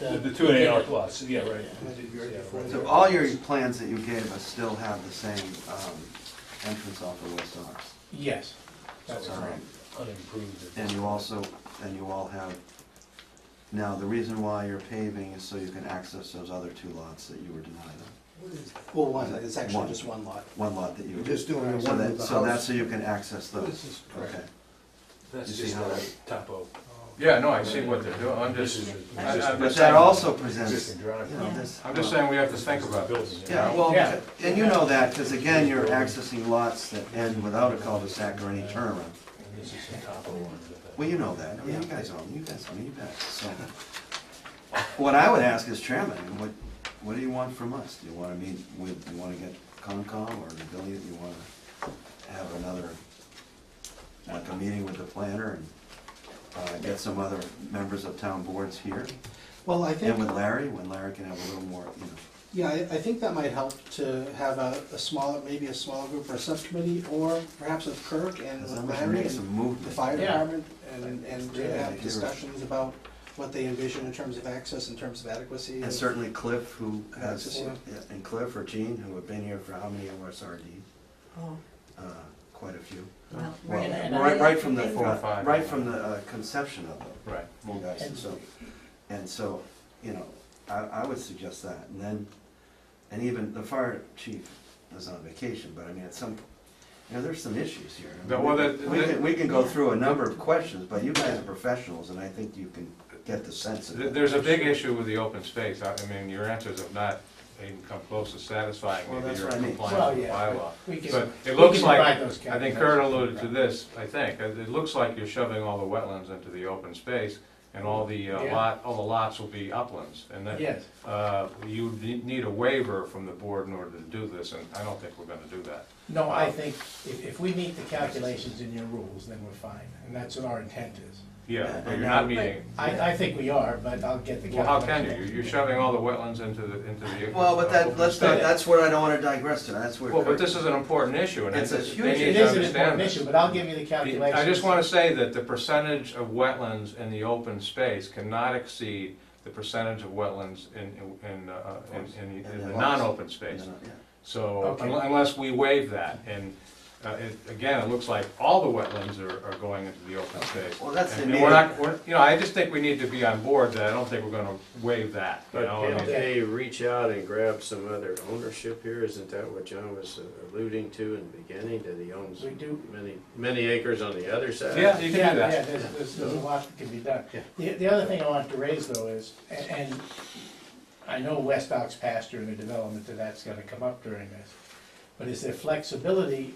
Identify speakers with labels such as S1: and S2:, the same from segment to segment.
S1: The the two
S2: two
S1: and
S2: and
S1: eight
S2: a
S1: are
S2: half.
S1: plus, yeah, right. Yeah, right.
S3: So all your plans that you gave us still have the same um, entrance off of West Ox?
S2: Yes, that's
S3: All right.
S2: correct.
S1: Unimproved.
S3: And you also, and you all have, now, the reason why you're paving is so you can access those other two lots that you were denied,
S4: Well, one, it's
S3: One.
S4: actually just one lot.
S3: one lot that you.
S4: We're just doing the
S3: So
S4: one
S3: that-
S4: with the
S3: So that's
S4: house.
S3: so you can access
S4: This
S3: those,
S4: is correct.
S3: okay.
S1: That's
S3: You see
S1: just
S3: how
S1: a
S3: that-
S1: topo.
S5: Yeah, no, I see what they're doing, I'm just,
S1: This is a-
S5: I- I'm
S3: But
S5: just
S3: that
S5: saying,
S3: also presents,
S1: Existing
S3: you
S1: driveway.
S3: know, this.
S5: I'm just saying we have to think about this.
S1: Building,
S3: Yeah, well, and you know that, because again, you're accessing lots that end without a cul-de-sac or any turnaround.
S1: And this is a topo one. but-
S3: Well, you know that, I mean, you guys all, you guys, I mean, you bet, so. What I would ask is chairman, I mean, what, what do you want from us? Do you wanna meet with, you wanna get Concom or the Billy, do you wanna have another, like a meeting with the planner and, uh, get some other members of town boards here?
S4: Well, I think,
S3: And with Larry, when Larry can have a little more, you know,
S4: yeah, I, I think that might help to have a, a smaller, maybe a smaller group or a subcommittee, or perhaps with Kirk and with
S3: as long as we
S4: Larry
S3: make
S4: and
S3: some
S4: the
S3: movement.
S4: fire
S2: Yeah.
S4: department, and, and to
S3: Yeah,
S4: have
S3: you're-
S4: discussions about what they envision in terms of access, in terms of adequacy.
S3: And certainly Cliff, who has,
S4: Yeah.
S3: and Cliff or Gene, who have been here for how many OSRD? Uh, Quite a few.
S6: Well, we're
S3: Well,
S6: gonna-
S3: right, right from the,
S5: Four or five.
S3: right from the uh, conception of them,
S5: Right.
S3: you guys, and so, and so, you know, I, I would suggest that, and then, and even the fire chief is on vacation, but I mean, at some, you know, there's some issues here. I mean,
S5: No, well, that-
S3: We can,
S5: that-
S3: we can go through a number of questions, but you guys are professionals, and I think you can get the sense of
S5: There-
S3: it.
S5: There's a big issue with the open space, I I mean, your answers have not even come close to satisfying
S3: Well,
S5: me that
S3: that's
S5: you're
S3: what I mean.
S5: compliant with the
S2: Well, yeah,
S5: bylaw.
S2: We can-
S5: But
S2: we
S5: it looks
S2: can
S5: like,
S2: provide those
S5: I think
S2: calculations.
S5: Kurt alluded to this, I think, it it looks like you're shoving all the wetlands into the open space, and all the uh,
S2: Yeah.
S5: lot, all the lots will be uplands, and that,
S2: Yes,
S5: uh, you ne- need a waiver from the board in order to do this, and I don't think we're gonna do that.
S2: no, I think if, if we meet the calculations in your rules, then we're fine, and that's what our intent is.
S5: Yeah, but
S3: And
S5: you're
S3: now-
S5: not meeting,
S2: I, I think we are, but I'll get the
S5: well, how can
S2: calculations.
S5: you? You're- You're shoving all the wetlands into the, into the.
S3: Well, but
S5: uh,
S3: that,
S5: open
S3: let's
S5: space.
S3: not, that's where I don't wanna digress to, that's where.
S5: Well, but
S3: Kurt-
S5: this is an important issue, and I
S3: It's a
S5: think
S3: huge
S5: they
S2: It
S5: need to
S2: is an important
S5: understand
S2: issue,
S5: this.
S2: but I'll give you the calculations.
S5: I just wanna say that the percentage of wetlands in the open space cannot exceed the percentage of wetlands in, in, uh, in, in the- in the non-open space.
S3: Yeah.
S5: So,
S2: Okay.
S5: unle- unless we waive that, and, uh, it, again, it looks like all the wetlands are, are going into the open space.
S3: Well, that's the
S5: And and
S3: meeting.
S5: we're not, we're, you know, I just think we need to be on board that I don't think we're gonna waive that, you know, I
S7: But can
S5: mean,
S7: they reach out and grab some other ownership here? Isn't that what John was alluding to in the beginning, that he owns
S2: We do,
S7: many, many acres on the other side?
S5: Yeah, you
S2: Yeah,
S5: can do
S2: Yeah,
S5: that.
S2: there's, there's, there's a lot that can be done.
S7: Yeah.
S2: The, the other thing I wanted to raise though is, a- and, I know West Ox pasture and the development of that's gonna come up during this, but is there flexibility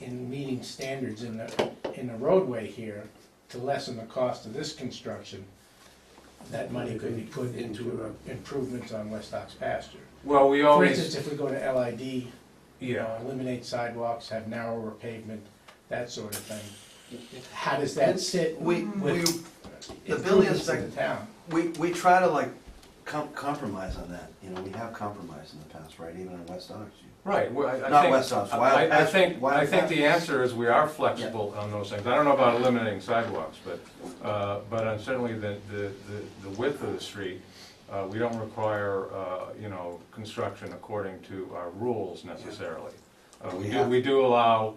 S2: in meeting standards in the, in the roadway here to lessen the cost of this construction? That money could be put into improvements on West Ox pasture.
S5: Well, we
S2: For
S5: always.
S2: instance, if we go to LID, you
S5: Yeah.
S2: know, eliminate sidewalks, have narrower pavement, that sort of thing. How does that sit
S3: We, we,
S2: with
S3: the
S2: improvements
S3: building
S2: in
S3: inspector,
S2: the town?
S3: we, we try to like com- compromise on that, you know, we have compromised in the past, right, even in West Orange.
S5: Right, well, I- I
S3: Not
S5: think-
S3: West Ops,
S5: I-
S3: Wild
S5: I- I
S3: Patch-
S5: think,
S3: Wild
S5: I think
S3: Patch.
S5: the answer is we are flexible on those things. I don't know about eliminating sidewalks, but, uh, but on certainly the, the, the- the width of the street, uh, we don't require, uh, you know, construction according to our rules necessarily. Uh,
S3: We
S5: We do,
S3: have-
S5: we do allow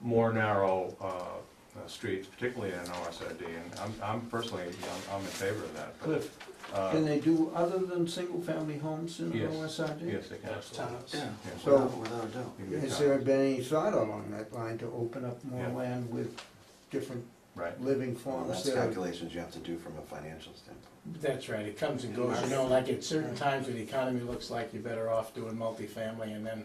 S5: more narrow uh, uh, streets, particularly in an OSRD, and I'm, I'm personally, I'm- I'm in favor of that. but,
S8: Cliff,
S5: uh,
S8: can they do other than single-family homes in
S5: Yes.
S8: OSRD?
S5: Yes, they can.
S4: Townhouse.
S8: Yeah.
S5: Yes.
S8: So-
S3: Without without a doubt.
S5: You can get
S8: Has
S5: time.
S8: there been any thought along that line to open up more
S5: Yeah.
S8: land with different
S5: Right.
S8: living
S3: Well,
S8: forms
S3: that's
S8: that are
S3: calculations you have to do from a financial standpoint.
S2: That's right, it comes and goes, you know, like at certain times when the economy looks like you're better off doing multifamily and then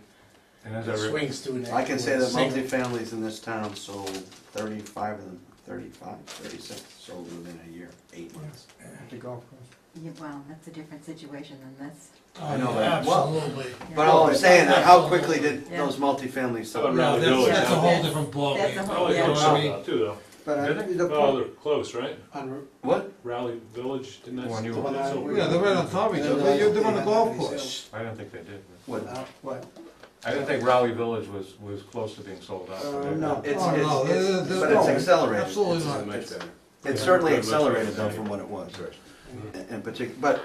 S5: And as I
S2: it
S5: re-
S2: swings to an.
S3: I can say that
S2: single.
S3: multifamilies in this town sold thirty-five of them, thirty-five, thirty-six, sold within a year, eight months.
S8: the golf course?
S6: Yeah, well, that's a different situation than this.
S3: I know that. Well,
S9: Absolutely.
S3: but all I'm saying, how quickly did those multifamilies
S1: How
S3: sell?
S1: about
S9: No,
S1: around the Oh, village?
S9: that's, that's a whole
S6: That's-
S9: different ballgame.
S6: that's a whole-
S1: Raleigh
S6: yeah.
S1: Village,
S8: Well, I
S1: uh, too, though.
S8: But I,
S5: Really?
S8: the
S1: Oh,
S8: point,
S1: they're close, right?
S4: On Route-
S3: What?
S1: Raleigh Village, didn't
S5: When you
S1: that?
S5: were-
S4: When I-
S1: so-
S4: we-
S9: Yeah, they're right on top of each
S4: Yeah,
S9: other, you're
S4: they
S9: they're on the
S4: have
S9: golf
S4: these
S9: course.
S4: sales.
S5: I don't think they did.
S3: What?
S4: Uh,
S8: what,
S5: I didn't think Raleigh Village was, was close to being sold out.
S8: uh, no.
S3: It's,
S9: Oh, no,
S3: it's,
S9: they're-
S3: it's,
S9: they're-
S3: but it's
S9: no,
S3: accelerated.
S9: Absolutely
S3: It's-
S9: not.
S7: Much better.
S3: It's certainly accelerated though from what it was, in particular, but